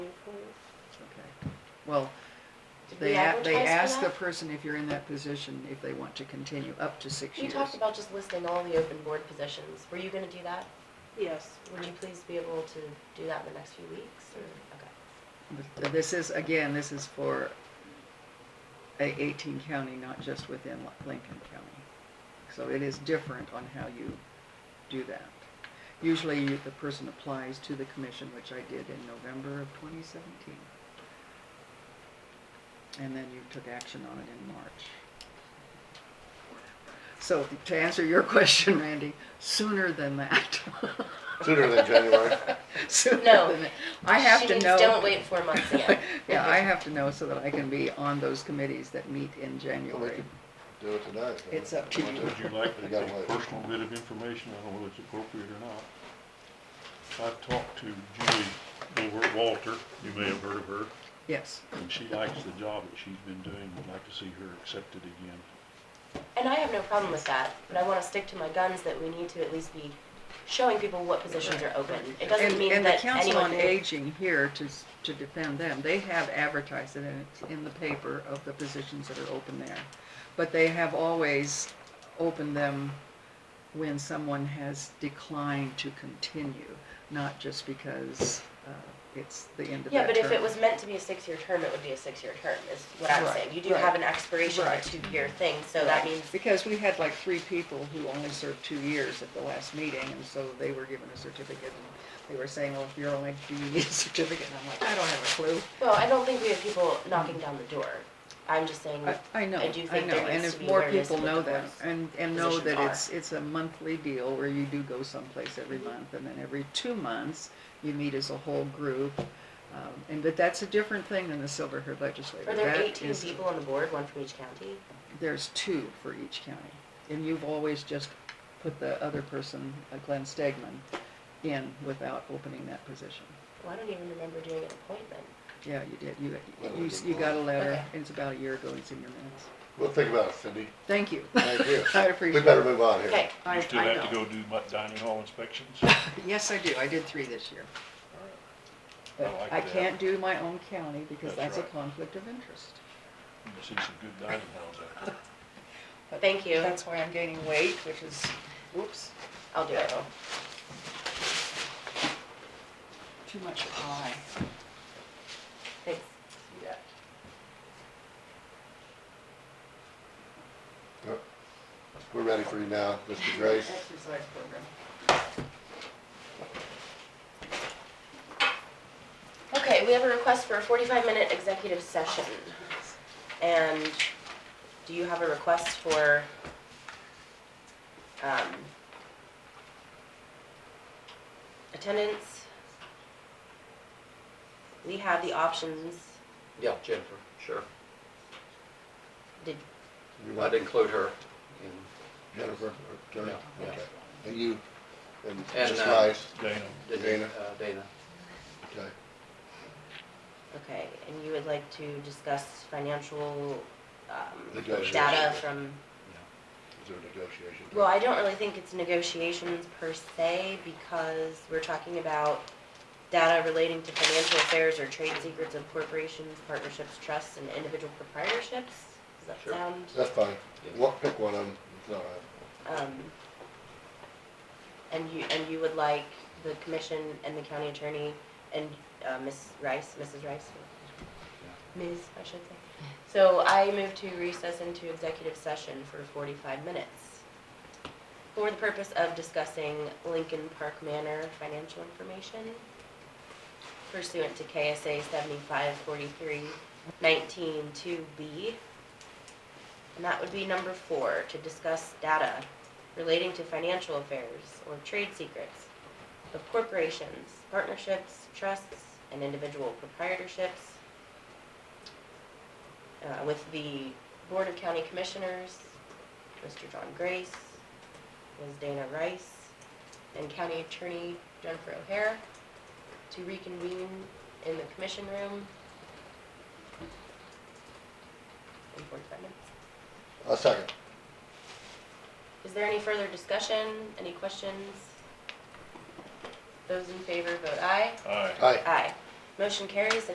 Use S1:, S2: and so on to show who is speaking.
S1: Well,
S2: Did we
S1: they, a-
S2: advertise
S1: they ask
S2: for
S1: the
S2: that?
S1: person if you're in that position, if they want to continue up to six
S2: We
S1: years.
S2: talked about just listing all the open board positions. Were you gonna do that?
S3: Yes.
S2: Would you please be able to do that in the next few weeks or, okay?
S1: But This is, again, this is for a eighteen county, not just within Lin- Lincoln County. So it is different on how you do that. Usually you- the person applies to the commission, which I did in November of twenty seventeen. And then you took action on it in March. So to answer your question, Randy, sooner than that.
S4: Sooner than January.
S1: Sooner
S2: No.
S1: than that. I have to
S2: She
S1: know.
S2: means don't wait four months again.
S1: Yeah, I have to know so that I can be on those committees that meet in
S4: Well, we
S1: January.
S4: could do it tonight. huh?
S1: It's up to you.
S5: Would you like to
S4: We
S5: get
S4: gotta
S5: a
S4: wait.
S5: personal bit of information, I don't know whether it's appropriate or not. I've talked to Julie over at Walter, you may have heard of her,
S1: Yes,
S5: and she likes the job that she's been doing, would like to see her accepted again.
S2: And I have no problem with that, but I wanna stick to my guns that we need to at least be showing people what positions are open. It
S1: and,
S2: doesn't mean
S1: and the
S2: that
S1: Council
S2: anyone
S1: on
S2: who,
S1: Aging here to, s- to defend them, they have advertised it and it's in the paper of the positions that are open there. But they have always opened them when someone has declined to continue, not just because, uh, it's the end of
S2: yeah,
S1: that
S2: but if it
S1: term.
S2: was meant to be a six-year term, it would be a six-year term, is what I'm
S1: Right,
S2: saying. You do
S1: right,
S2: have an expiration of a
S1: right.
S2: two-year thing, so that means
S1: Because we had like three people who only served two years at the last meeting, and so they were given a certificate. and They were saying, well, if you're only, do you need a certificate? And I'm like, I don't have a clue.
S2: Well, I don't think we have people knocking down the door. I'm just saying,
S1: I, I know,
S2: I
S1: I
S2: do think
S1: know,
S2: there
S1: and
S2: needs
S1: if
S2: to be
S1: more
S2: awareness
S1: people
S2: with
S1: know
S2: the
S1: that,
S2: boards.
S1: and, and know
S2: Positions
S1: that
S2: are.
S1: it's, it's a monthly deal where you do go someplace every month, and then every two months, you meet as a whole group. Um, And, but that's a different thing than the Silver Herd Legislature.
S2: are there
S1: That
S2: 18
S1: is-
S2: people on the board, one from each county?
S1: there's two for each county. And you've always just put the other person, uh, Glenn Stegman, in without opening that position.
S2: Well, I don't even remember doing an appointment.
S1: Yeah, you did. You,
S4: Well,
S1: you,
S4: we did
S1: you got a
S4: one.
S1: letter.
S2: Okay.
S1: It's about a year ago. It's in your minutes.
S4: Well, think about it, Cindy.
S1: Thank you.
S4: Thank you.
S1: I
S4: We
S1: appreciate
S4: better
S1: it.
S4: move on here.
S2: Okay,
S1: I-
S5: You still
S1: I
S5: have to
S1: know.
S5: go do mu- dining hall inspections?
S1: Yes, I do. I did three this year.
S5: I
S1: But
S5: like
S1: I
S5: that.
S1: can't do my own county because that's
S5: That's
S1: a
S5: right.
S1: conflict of interest.
S5: You can see some good dining halls out there.
S1: But
S2: Thank you.
S1: That's why I'm gaining weight, which is, whoops,
S2: I'll do it.
S1: too much pie.
S2: Thanks.
S1: Yeah.
S4: We're ready for you now, Mr. Grace.
S1: Exercise program.
S2: Okay, we have a request for a 45-minute executive session. And do you have a request for, um, attendance? We have the options.
S6: Yeah, Jennifer, sure.
S2: Did,
S4: You want
S6: I'd include her in,
S4: Jennifer, or Jennifer?
S6: Yeah, yeah.
S4: Okay. And you, and
S6: And,
S4: Ms.
S6: uh,
S4: Rice,
S5: Dana,
S6: Dana,
S4: Dana?
S6: uh, Dana.
S4: okay.
S2: okay, and you would like to discuss financial, um,
S4: Negotiation.
S2: data from,
S4: Is there a negotiation?
S2: well, I don't really think it's negotiations per se, because we're talking about data relating to financial affairs or trade secrets of corporations, partnerships, trusts, and individual proprietorships. Does that
S6: Sure.
S2: sound?
S4: That's fine.
S6: Yeah.
S4: One- Pick one of them. It's all right.
S2: Um, and you, and you would like the commission and the county attorney and, uh, Ms. Rice, Mrs. Rice? Ms., I should say. So I move to recess into executive session for forty-five minutes for the purpose of discussing Lincoln Park Manor financial information pursuant to KSA seventy-five forty-three nineteen two B. And that would be number four, to discuss data relating to financial affairs or trade secrets of corporations, partnerships, trusts, and individual proprietorships uh, with the Board of County Commissioners, Mr. John Grace, Ms. Dana Rice, and County Attorney Jennifer O'Hare to reconvene in the commission room in 45 minutes.
S4: I'll second.
S2: Is there any further discussion, any questions? Those in favor vote aye.
S5: aye.
S4: Aye.
S2: Aye. Motion carries